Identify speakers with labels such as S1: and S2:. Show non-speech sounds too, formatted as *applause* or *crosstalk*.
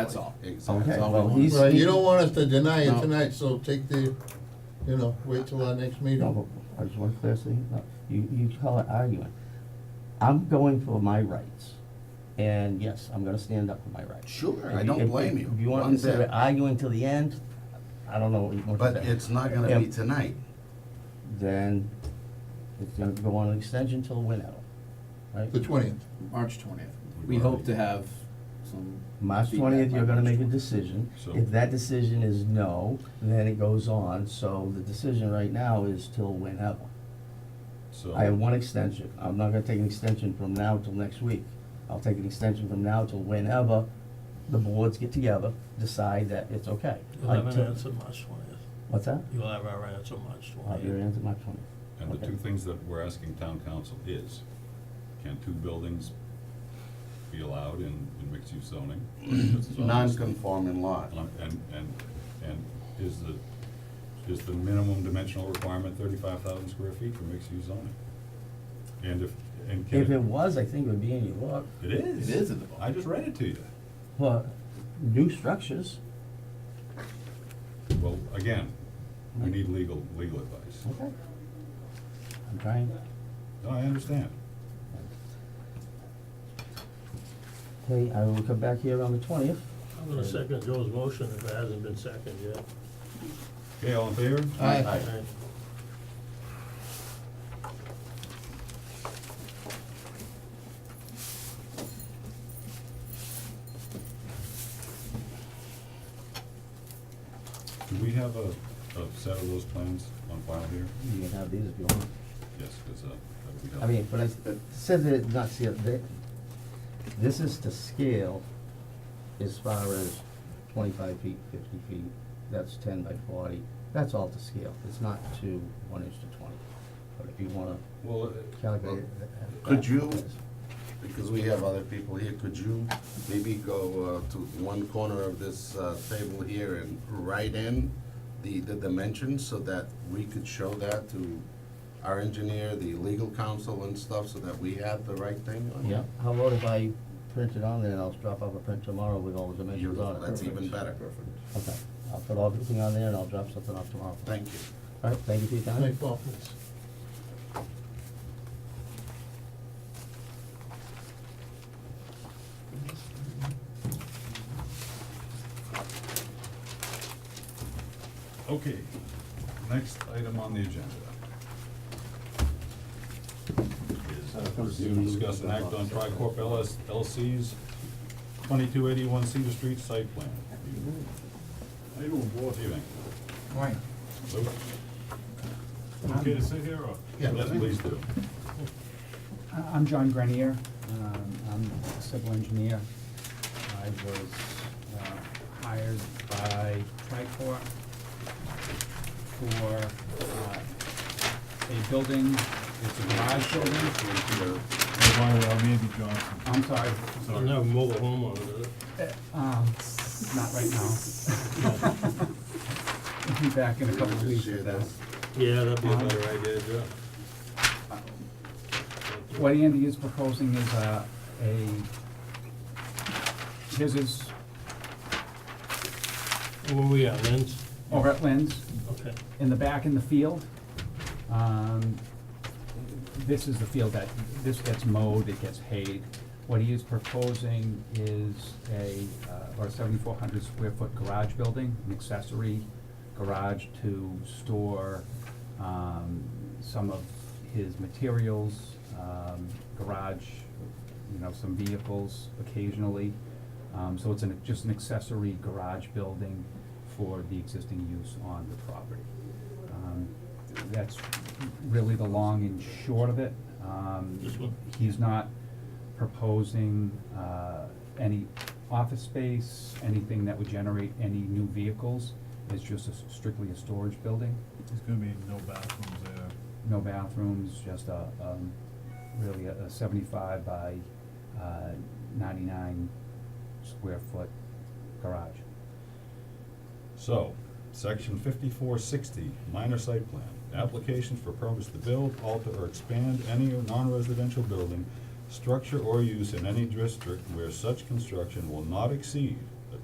S1: That's all.
S2: Okay,
S1: Exactly.
S2: well, he's,
S3: Right,
S2: he-
S3: you don't want us to deny
S1: No.
S3: it tonight, so take the, you know, wait till our next meeting.
S2: no, but I just want to clear thing up. You, you call it arguing. I'm going for my rights, and yes, I'm gonna stand up for my rights.
S1: Sure, I
S2: If-
S1: don't
S2: if-
S1: blame you.
S2: If you want to
S1: one bit.
S2: consider arguing till the end, I don't know what you want to
S1: But
S2: say.
S1: it's not gonna be
S2: Yeah.
S1: tonight.
S2: Then it's gonna go on an extension till whenever, right?
S3: The twentieth,
S4: March twentieth. We hope to have some.
S2: March
S4: feedback
S2: twentieth,
S4: by
S2: you're gonna
S4: March
S2: make a
S4: 20th.
S2: decision.
S5: So-
S2: If that decision is no, then it goes on, so the decision right now is till whenever.
S5: So,
S2: I have one extension. I'm not gonna take an extension from now till next week. I'll take an extension from now till whenever the boards get together, decide that it's okay.
S6: You'll have
S2: Like,
S6: an
S2: till-
S6: answer March twentieth.
S2: What's that?
S6: You'll have our answer March
S2: I'll have your
S6: twentieth.
S2: answer March twentieth.
S5: and the two things that we're asking town council is, can two buildings be allowed in, in
S2: *clears throat*
S5: mixed-use zoning? This is all-
S1: Non-conforming lot.
S5: And, and, and is the, is the minimum dimensional requirement thirty-five thousand square feet for mixed-use zoning? And if, and
S2: If it
S5: can
S2: was, I think it would be in your book,
S5: it? It is.
S4: It is in the book.
S5: I just read it to you.
S2: but new structures,
S5: Well, again, we need legal, legal advice.
S2: okay. I'm trying.
S5: No, I understand.
S2: Okay, I will come back here on the twentieth.
S6: I'm gonna second Joe's motion if it hasn't been seconded yet.
S5: Okay, all in favor?
S3: Aye.
S6: Alright.
S5: Do we have a, a set of those plans on file here?
S2: You can have these if you want.
S5: Yes, because, uh, that would be helpful.
S2: I mean, but I said that it's not scale, that, this is to scale as far as twenty-five feet, fifty feet, that's ten by forty, that's all to scale, it's not to one inch to twenty. But if you wanna
S5: Well, uh,
S2: calculate it. that-
S1: Could you-
S2: that's-
S1: Because we have other people here, could you maybe go uh, to one corner of this uh, table here and write in the, the dimensions so that we could show that to our engineer, the legal counsel and stuff, so that we have the right thing on?
S2: Yeah, how about if I print it on there and I'll drop off a print tomorrow with all the dimensions on
S1: Beautiful,
S2: it?
S1: that's even better. Perfect.
S2: Okay, I'll put all everything on there and I'll drop something off tomorrow.
S1: Thank you.
S2: Alright, thank you for your time.
S3: night, Paul, please.
S5: okay, next item on the agenda. Is to discuss an act on Tricorp LS, LC's twenty-two eighty-one Cedar Street site plan.
S7: Mm-hmm.
S5: How you doing, board? Evening. Luke? Okay to sit here or?
S3: Yeah.
S5: Yes, please do.
S8: I- I'm John Grenier, um, I'm a civil engineer. I was uh, hired by Tricor for uh, a building, it's a garage building,
S5: Mandy Johnson.
S8: I'm sorry,
S6: I'll have mobile home on it.
S8: um, not right *laughs* now. I'll be back in a couple of weeks
S1: Share
S8: with that.
S1: this.
S6: Yeah, that'd be a better idea, Joe.
S8: What Andy is proposing is uh, a, a, his is
S6: Where we at, Lynn's?
S8: over at Lynn's,
S6: Okay.
S8: in the back in the field. Um, This is the field that, this gets mowed, it gets hayed. What he is proposing is a, uh, about a seventy-four hundred square foot garage building, an accessory garage to store um, some of his materials, um, garage, you know, some vehicles occasionally. Um, So it's an, just an accessory garage building for the existing use on the property. Um, That's really the long and short of it. Um,
S6: This one?
S8: He's not proposing uh, any office space, anything that would generate any new vehicles. It's just a s- strictly a storage building,
S7: There's gonna be no bathrooms there.
S8: no bathrooms, just a, um, really a a seventy-five by uh, ninety-nine square foot garage.
S5: So, section fifty-four sixty, minor site plan, applications for permits to build, alter, or expand any non-residential building, structure or use in any district where such construction will not exceed